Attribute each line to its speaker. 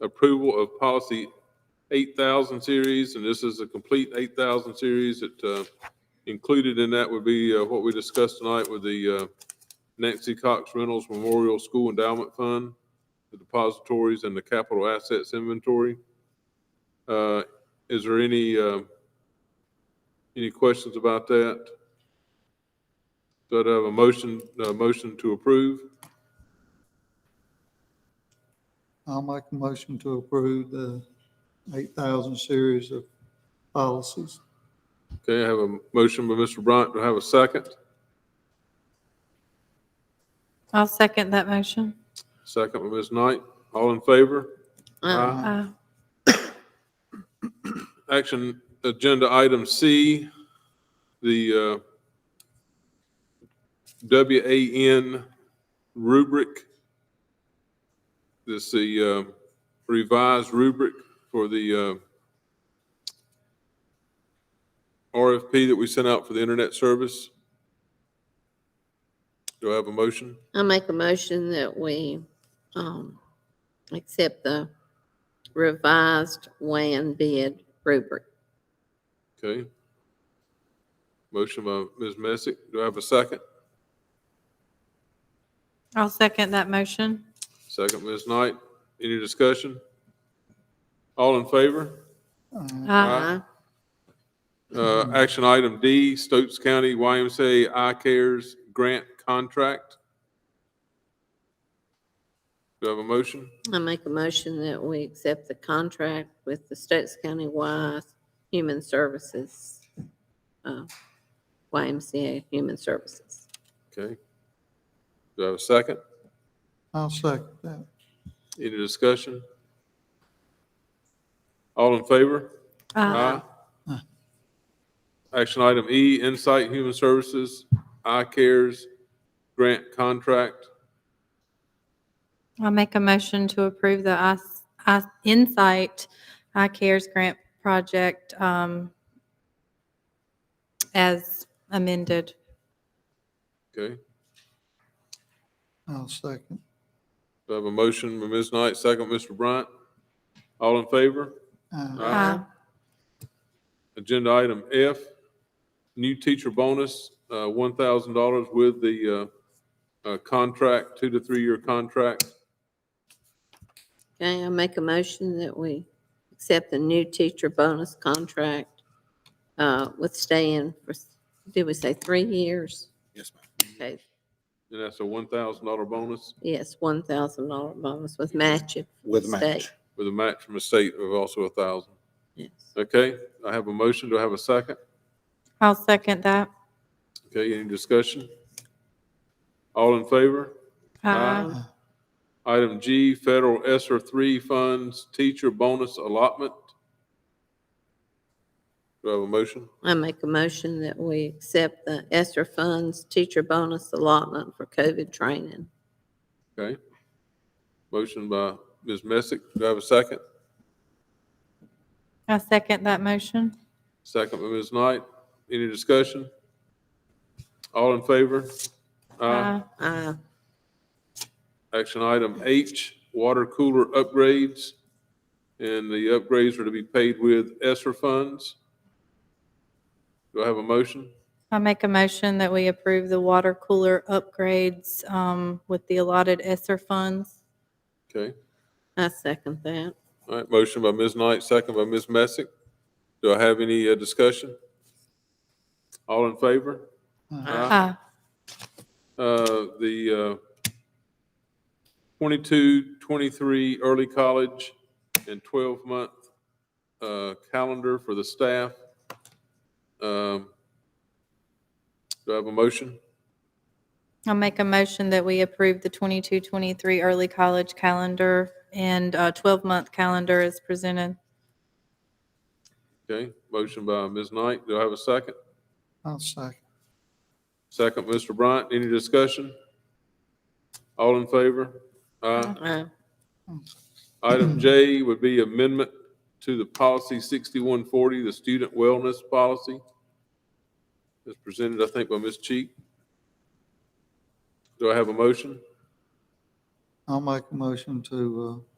Speaker 1: approval of policy 8,000 series, and this is a complete 8,000 series. It uh, included in that would be uh, what we discussed tonight with the uh, Nancy Cox Reynolds Memorial School Endowment Fund, the depositories and the capital assets inventory. Uh, Is there any, uh, any questions about that? Do I have a motion, a motion to approve?
Speaker 2: I'll make a motion to approve the 8,000 series of policies.
Speaker 1: Okay, I have a motion by Mr. Bryant. Do I have a second?
Speaker 3: I'll second that motion.
Speaker 1: Second by Ms. Knight. All in favor? Aye.
Speaker 3: Uh,
Speaker 1: Action agenda item C, the uh, WAN rubric. This is the uh, revised rubric for the uh, RFP that we sent out for the internet service. Do I have a motion?
Speaker 4: I make a motion that we, um, accept the revised WAN bid rubric.
Speaker 1: Okay. Motion by Ms. Messick. Do I have a second?
Speaker 3: I'll second that motion.
Speaker 1: Second, Ms. Knight. Any discussion? All in favor?
Speaker 2: Uh,
Speaker 3: Uh,
Speaker 1: Aye. Uh, action item D, Stokes County YMCA I Cares Grant Contract. Do I have a motion?
Speaker 4: I make a motion that we accept the contract with the Stokes County Wise Human Services, uh, YMCA Human Services.
Speaker 1: Okay. Do I have a second?
Speaker 2: I'll second that.
Speaker 1: Any discussion? All in favor?
Speaker 3: uh,
Speaker 1: Aye. Action item E, Insight Human Services, I Cares Grant Contract.
Speaker 3: I'll make a motion to approve the IS- IS- Insight iCares Grant Project um, as amended.
Speaker 1: Okay,
Speaker 2: I'll second.
Speaker 1: do I have a motion by Ms. Knight, second Mr. Bryant? All in favor?
Speaker 2: Uh,
Speaker 1: Aye.
Speaker 3: Uh,
Speaker 1: Agenda item F, new teacher bonus, uh, one thousand dollars with the, uh, uh, contract, two to three-year contract.
Speaker 4: Okay, I make a motion that we accept the new teacher bonus contract, uh, with staying for, did we say three years?
Speaker 5: Yes, ma'am.
Speaker 4: Okay,
Speaker 1: And that's a one thousand dollar bonus
Speaker 4: yes, one thousand dollar bonus with matching.
Speaker 5: With
Speaker 4: State.
Speaker 5: match.
Speaker 1: with a match from the state of also a thousand.
Speaker 4: Yes.
Speaker 1: Okay, I have a motion, do I have a second?
Speaker 3: I'll second that.
Speaker 1: Okay, any discussion? All in favor?
Speaker 3: Uh,
Speaker 2: Aye.
Speaker 1: Item G, federal ESSER three funds, teacher bonus allotment. Do I have a motion?
Speaker 4: I make a motion that we accept the ESSER funds teacher bonus allotment for COVID training.
Speaker 1: Okay. Motion by Ms. Messick. Do I have a second?
Speaker 3: I'll second that motion.
Speaker 1: Second by Ms. Knight. Any discussion? All in favor?
Speaker 3: Uh,
Speaker 4: Uh,
Speaker 1: Action item H, water cooler upgrades. And the upgrades are to be paid with ESSER funds. Do I have a motion?
Speaker 3: I make a motion that we approve the water cooler upgrades um, with the allotted ESSER funds.
Speaker 1: Okay.
Speaker 4: I second that.
Speaker 1: All right, motion by Ms. Knight, second by Ms. Messick. Do I have any uh, discussion? All in favor?
Speaker 3: Uh,
Speaker 1: Uh, The uh, 22, 23 early college and 12-month uh, calendar for the staff. Um, Do I have a motion?
Speaker 3: I'll make a motion that we approve the 22-23 early college calendar and uh, 12-month calendar as presented.
Speaker 1: Okay, motion by Ms. Knight. Do I have a second?
Speaker 2: I'll second.
Speaker 1: Second, Mr. Bryant. Any discussion? All in favor? Aye.
Speaker 4: Uh,
Speaker 1: Item J would be amendment to the policy 6140, the student wellness policy. As presented, I think, by Ms. Cheek. Do I have a motion?
Speaker 2: I'll make a motion to uh,